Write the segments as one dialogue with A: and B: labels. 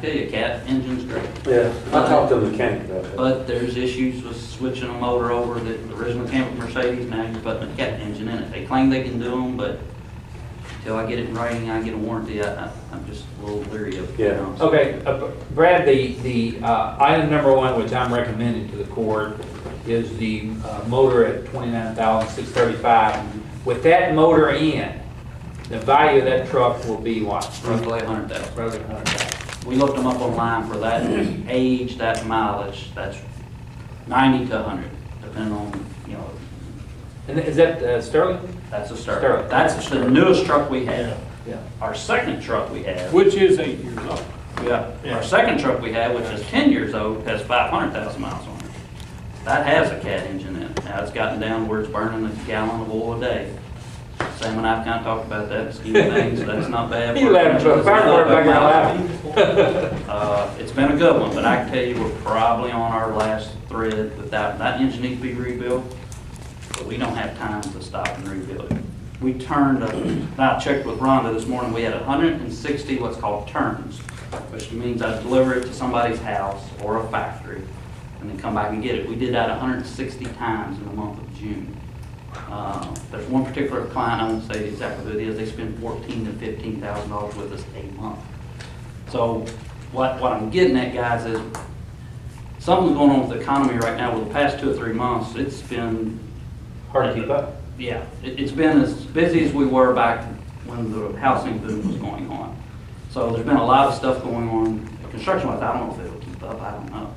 A: tell you, cat engine's great.
B: Yeah, I talked to the mechanic about
A: But there's issues with switching a motor over that originally came with Mercedes, now you're putting a cat engine in it. They claim they can do them, but until I get it in writing, I get a warranty, I, I- I'm just a little leery of. it, you know.
B: Yeah.
C: Okay, uh, Brad, the, the uh, item number one, which I'm recommending to the court, is the uh, motor at 29,635. With that motor in, the value of that truck will be what?
A: Roughly a hundred thousand.
C: Roughly 100,000.
A: We looked them up online for that age, that mileage, that's ninety to hundred, depending on, you know,
C: And is that uh, Sterling?
A: that's a start.
C: Start.
A: That's the newest truck we have.
C: Yeah.
A: Our second truck we have,
D: Which is eight years old.
A: yeah,
D: Yeah.
A: our second truck we have, which is ten years old, has five hundred thousand miles on it. That has a cat engine in it. Now, it's gotten down where it's burning a gallon of oil a day. Sam and I've kind of talked about that, scheme of things, that's not bad.
C: He laughed, but
A: It's not
C: fire
A: bad
C: department back
A: mileage.
C: there laughing.
A: Uh, It's been a good one, but I can tell you, we're probably on our last thread with that. That engine needs to be rebuilt, but we don't have time to stop and rebuild it. We turned, uh, I checked with Rhonda this morning, we had 160 what's called turns, which means I deliver it to somebody's house or a factory and then come back and get it. We did that 160 times in the month of June. Uh, There's one particular client, I won't say exactly who it is, they spend 14 to $15,000 with us a month. So what, what I'm getting at, guys, is something's going on with the economy right now. With the past two or three months, it's been,
C: Hard to keep up.
A: yeah, it, it's been as busy as we were back when the housing boom was going on. So there's been a lot of stuff going on construction-wise. I don't know if it'll keep up, I don't know.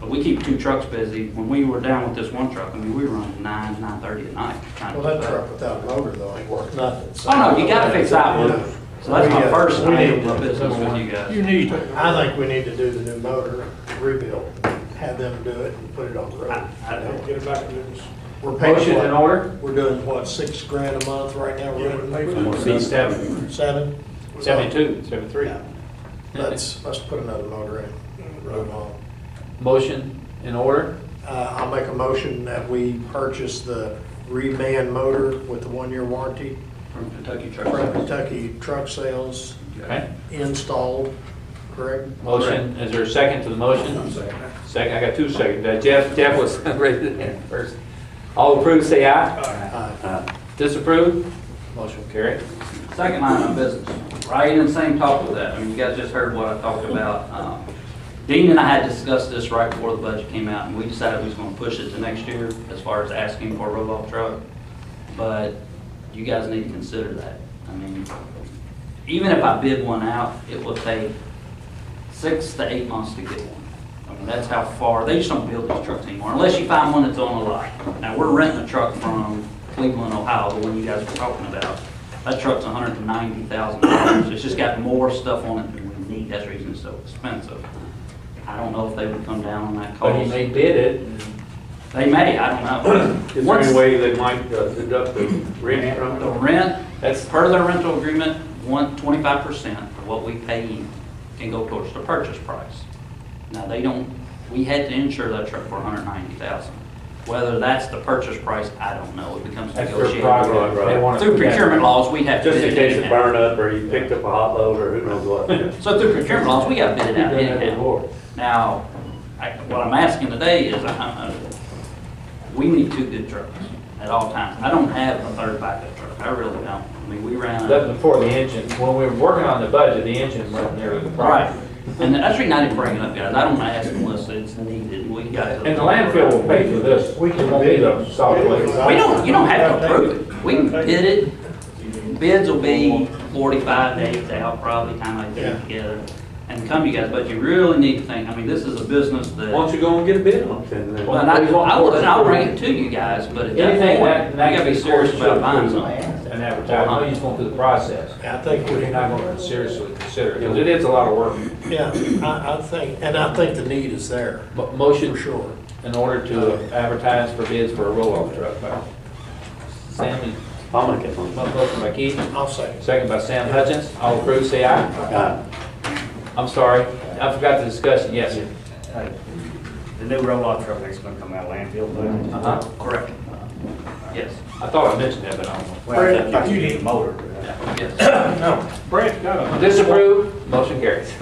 A: But we keep two trucks busy. When we were down with this one truck, I mean, we were running nine, nine-thirty at night. trying to
E: Well, that
A: keep up.
E: truck without a motor though ain't worth nothing. so-
A: Oh, no, you gotta fix that one.
E: Yeah.
A: So that's my
E: We, uh,
A: first
E: we need
A: item
E: to-
A: of business with you guys.
D: You need,
E: I think we need to do the new motor rebuild, have them do it and put it on the road.
A: I- I don't
D: get it back to this.
E: We're paying,
C: Motion in
E: what-
C: order?
E: we're doing what, six grand a month right now?
D: Yeah, we're paying for
E: We're
D: it.
C: C
E: doing
C: seven.
E: Seven?
C: 72, 73.
E: Yeah. Let's, let's put another motor in, road on.
C: Motion in order?
E: Uh, I'll make a motion that we purchase the reman motor with the one-year warranty
A: From Kentucky Truck
E: from
A: Service.
E: Kentucky Truck Sales
C: Okay.
E: installed, correct?
C: Motion, is there a second to the motion? Second. I got two seconds. Uh, Jeff, Jeff was raising his hand first. All approve, say aye.
E: Aye.
B: Uh,
C: Disapprove? Motion carried.
A: Second line of business, right in the same talk with that, I mean, you guys just heard what I talked about. Um, Dean and I had discussed this right before the budget came out, and we decided we was gonna push it to next year as far as asking for a roll-off truck. But you guys need to consider that. I mean, even if I bid one out, it will take six to eight months to get one. I mean, that's how far, they just don't build these trucks anymore, unless you find one that's on a lot. Now, we're renting a truck from Cleveland, Ohio, the one you guys were talking about. That truck's hundred and ninety thousand dollars, it's just got more stuff on it than we need, that's the reason it's so expensive. I don't know if they would come down on that
C: But he
A: cost.
C: may bid it.
A: They may, I don't know.
B: it. Is there any
A: Once-
B: way they might uh, deduct the rent from
A: The
B: it?
A: rent,
C: That's-
A: per their rental agreement, one, twenty-five percent of what we pay in can go towards the purchase price. Now, they don't, we had to insure that truck for hundred ninety thousand. Whether that's the purchase price, I don't know, it becomes
C: That's their
A: negotiated.
C: prerogative. They want to-
A: Through procurement laws, we have to.
B: Just in
A: bid
B: case it
A: anyhow.
B: burned up or you picked up a hot load or who knows what. yeah.
A: So through procurement laws, we got to bid
C: We've
A: it out
C: done that
A: anyhow.
C: before.
A: Now, I- what I'm asking today is, I- I- we need two good trucks at all times. I don't have a third backup truck, I really don't. I mean, we ran. out.
C: That before the engine, when we were working on the budget, the engine wasn't nearly the
A: Right,
C: price.
A: and that's the reason I didn't bring it up, guys, I don't wanna ask unless it's needed, we got it.
C: And the landfill will pay for this. We can bid it. Solid waste.
A: We don't, you don't have to approve it, we can bid it, bids will be forty-five days out, probably, time I get it together, and come you guys, but you really need to think, I mean, this is a business that.
C: Why
A: Well,
C: don't you go and get a bid on it?
B: And then-
A: and I, I would, and I'll bring it to you guys, but at that
C: Anything that,
A: point,
C: that
A: you gotta be serious about buying something.
C: And advertise, no, you just going through the process.
E: I think
C: We're
E: we
C: not going to seriously consider it, because it is a lot of work.
E: Yeah, I, I think, and I think the need is there,
C: Mo- Motion
E: for sure.
C: in order to advertise for bids for a roll-off truck. by Sam, is-
B: I'll make it one.
C: motion by Keith,
E: I'll say.
C: second by Sam Hutchins. All approved, say aye.
B: Uh,
C: I'm sorry, I forgot the discussion, yes.
F: Uh, The new roll-off truck that's gonna come out of landfill, but.
C: Uh-huh.
A: Correct. Yes,
C: I thought I mentioned that, but I don't.
F: Well, I thought you need a motor.
A: yes.
D: No, Brett got a
C: know. Disapprove, motion carries.